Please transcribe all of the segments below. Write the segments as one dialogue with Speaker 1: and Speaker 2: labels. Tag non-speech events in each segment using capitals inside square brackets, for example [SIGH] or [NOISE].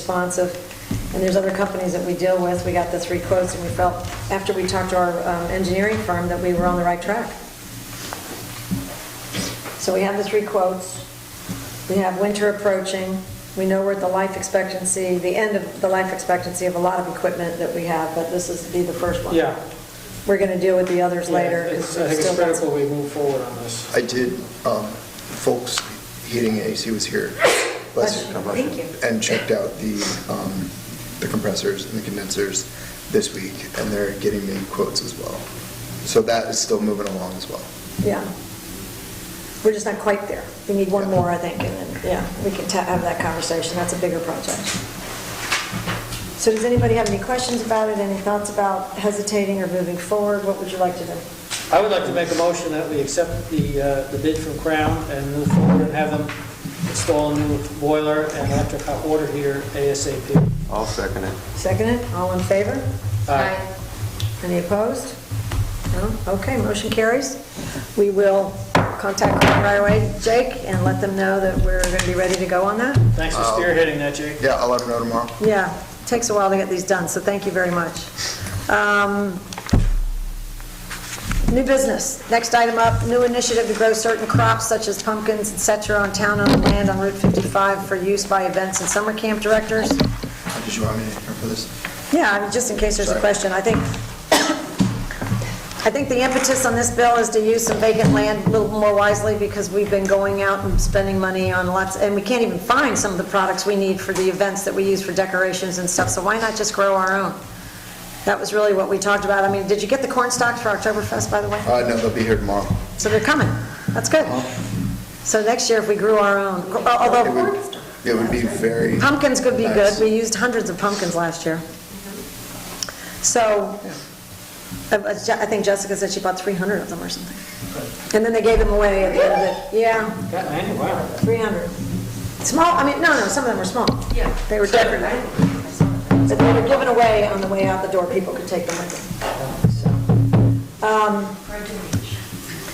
Speaker 1: responsive. And there's other companies that we deal with. We got the three quotes, and we felt, after we talked to our um, engineering firm, that we were on the right track. So we have the three quotes. We have winter approaching. We know we're at the life expectancy, the end of the life expectancy of a lot of equipment that we have, but this is be the first one.
Speaker 2: Yeah.
Speaker 1: We're going to deal with the others later.
Speaker 2: Yeah, it's-
Speaker 1: because
Speaker 2: I think it's
Speaker 1: still got some-
Speaker 2: critical we move forward on this.
Speaker 3: I did, um, folks, heating and AC was here. bless you,
Speaker 1: Thank you.
Speaker 3: And checked out the, um, the compressors and the condensers this week, and they're getting me quotes as well. So that is still moving along as well.
Speaker 1: Yeah. We're just not quite there. We need one more, I think, and then, yeah, we can ta- have that conversation. That's a bigger project. So does anybody have any questions about it, any thoughts about hesitating or moving forward? What would you like to do?
Speaker 2: I would like to make a motion that we accept the, uh, the bid from Crown and move forward and have them install a new boiler and electric hot water heater ASAP.
Speaker 4: I'll second it.
Speaker 1: Second it? All in favor?
Speaker 2: Aye.
Speaker 1: Any opposed? No? Okay, motion carries. We will contact Crown Railway, Jake, and let them know that we're going to be ready to go on that.
Speaker 2: Thanks for spearheading that, Jake.
Speaker 3: Yeah, I'll let them know tomorrow.
Speaker 1: Yeah, takes a while to get these done, so thank you very much. Um, New business, next item up, new initiative to grow certain crops such as pumpkins, et cetera, on town-owned land on Route 55 for use by events and summer camp directors.
Speaker 3: Did you want me to hear for this?
Speaker 1: Yeah, I mean, just in case there's a
Speaker 3: Sorry.
Speaker 1: question, I think, I think the impetus on this bill is to use some vacant land a little more wisely because we've been going out and spending money on lots, and we can't even find some of the products we need for the events that we use for decorations and stuff, so why not just grow our own? That was really what we talked about. I mean, did you get the corn stalks for Oktoberfest, by the way?
Speaker 3: Uh, Uh-huh. no, they'll be here tomorrow.
Speaker 1: So they're coming. That's good. So next year, if we grew our own,
Speaker 3: It would,
Speaker 1: although
Speaker 3: it would be very,
Speaker 1: Pumpkins could be good.
Speaker 3: Nice.
Speaker 1: We used hundreds of pumpkins last year. So, I I Je- I think Jessica said she bought 300 of them or something. And then they gave them away at the end of it. Yeah,
Speaker 2: Got many, wow.
Speaker 1: 300. Small, I mean, no, no, some of them were small. Yeah. They were decorative. But they were given away on the way out the door. People could take them with them. Um,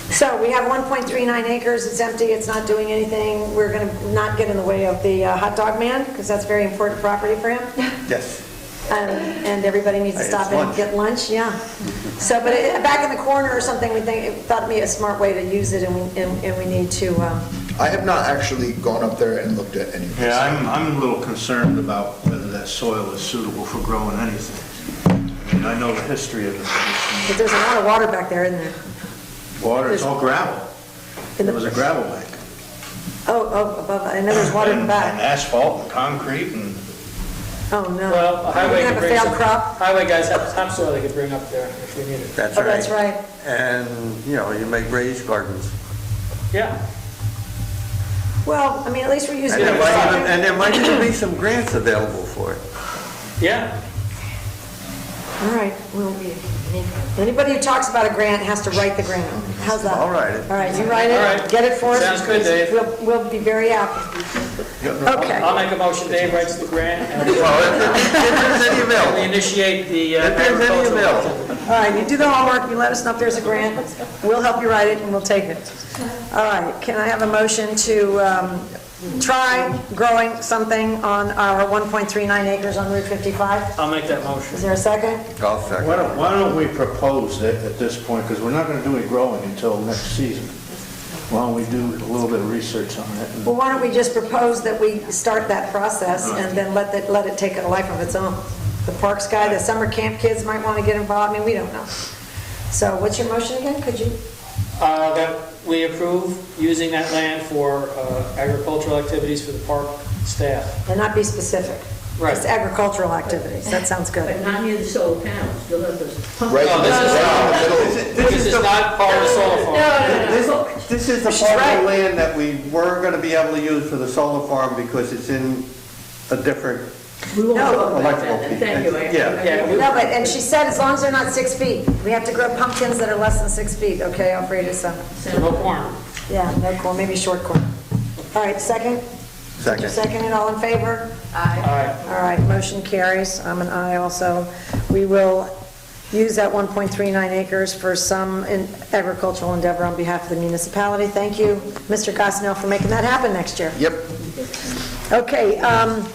Speaker 1: So we have 1.39 acres, it's empty, it's not doing anything. We're going to not get in the way of the uh, hot dog man, because that's very important property for him.
Speaker 3: yes.
Speaker 1: Um, And everybody needs to
Speaker 4: Hey,
Speaker 1: stop
Speaker 4: it's
Speaker 1: in and
Speaker 4: lunch.
Speaker 1: get lunch, yeah. So, but it- back in the corner or something, we think, it thought me a smart way to use it, and we, and and we need to, um,
Speaker 3: I have not actually gone up there and looked at any. of this.
Speaker 5: Yeah, I'm, I'm a little concerned about whether that soil is suitable for growing anything. I mean, I know the history of the place.
Speaker 1: but there's a lot of water back there, isn't there?
Speaker 5: Water, it's all gravel.
Speaker 1: In
Speaker 5: It
Speaker 1: the-
Speaker 5: was a gravel bank.
Speaker 1: Oh, oh, above, I know there's water in the
Speaker 5: And- And [LAUGHS]
Speaker 1: back.
Speaker 5: asphalt and concrete and,
Speaker 1: Oh, no.
Speaker 2: Well, a
Speaker 1: We're
Speaker 2: highway
Speaker 1: gonna
Speaker 2: could
Speaker 1: have a
Speaker 2: bring
Speaker 1: failed
Speaker 2: some,
Speaker 1: crop.
Speaker 2: highway guys have topsoil they could bring up there if we needed.
Speaker 4: That's
Speaker 1: Oh, that's right.
Speaker 4: And, you know, you make raised gardens.
Speaker 2: Yeah,
Speaker 1: Well, I mean, at least we're using
Speaker 4: [LAUGHS] And
Speaker 1: it.
Speaker 4: there might even, and there might even be some grants available for it.
Speaker 2: yeah.
Speaker 1: All right, well, anybody who talks about a grant has to write the grant. How's that?
Speaker 4: I'll write it.
Speaker 1: All right, you write
Speaker 2: All right.
Speaker 1: it, get it for us.
Speaker 2: Sounds good, Dave.
Speaker 1: We'll- We'll be very happy.
Speaker 2: I'll
Speaker 1: Okay,
Speaker 2: make a motion, Dave writes the grant, and we-
Speaker 4: Well, if if there's any
Speaker 2: and we
Speaker 4: available,
Speaker 2: initiate the uh,
Speaker 4: if there's any
Speaker 2: agricultural.
Speaker 4: available.
Speaker 1: all right, you do the homework, you let us know if there's a grant, we'll help you write it and we'll take it. All right, can I have a motion to um, try growing something on our 1.39 acres on Route 55?
Speaker 2: I'll make that motion.
Speaker 1: Is there a second?
Speaker 4: I'll second.
Speaker 5: why don't, why don't we propose that at this point, because we're not going to do any growing until next season. Why don't we do a little bit of research on it? and-
Speaker 1: Well, why don't we just propose that we start that process and then let it, let it take a life of its own? The parks guy, the summer camp kids might want to get involved, I mean, we don't know. So what's your motion again? Could you,
Speaker 2: Uh, That we approve using that land for uh, agricultural activities for the park staff.
Speaker 1: and not be specific?
Speaker 2: Right.
Speaker 1: Just agricultural activities, that sounds
Speaker 6: But
Speaker 1: good.
Speaker 6: not near the solar panels, you'll have those pump-
Speaker 3: Right,
Speaker 2: No,
Speaker 3: right
Speaker 2: this is-
Speaker 3: in the middle.
Speaker 2: This is not part of the solar farm.
Speaker 7: This, this is the
Speaker 1: She's
Speaker 7: part of
Speaker 1: right.
Speaker 7: the land that we were gonna be able to use for the solar farm because it's in a different,
Speaker 6: We won't
Speaker 1: No.
Speaker 6: talk about
Speaker 7: Electrical
Speaker 6: that,
Speaker 7: piece.
Speaker 6: thank you. I-
Speaker 7: Yeah.
Speaker 2: Yeah, we-
Speaker 1: No, but, and she said, as long as they're not six feet, we have to grow pumpkins that are less than six feet, okay, Alfreda, so,
Speaker 2: no corn.
Speaker 1: yeah, no corn, maybe short corn. All right, second?
Speaker 4: Second.
Speaker 1: Second and all in favor?
Speaker 2: All right,
Speaker 1: All right, motion carries. I'm an aye also. We will use that 1.39 acres for some in- agricultural endeavor on behalf of the municipality. Thank you, Mr. Gosnell, for making that happen next year.
Speaker 3: Yep,
Speaker 1: Okay, um,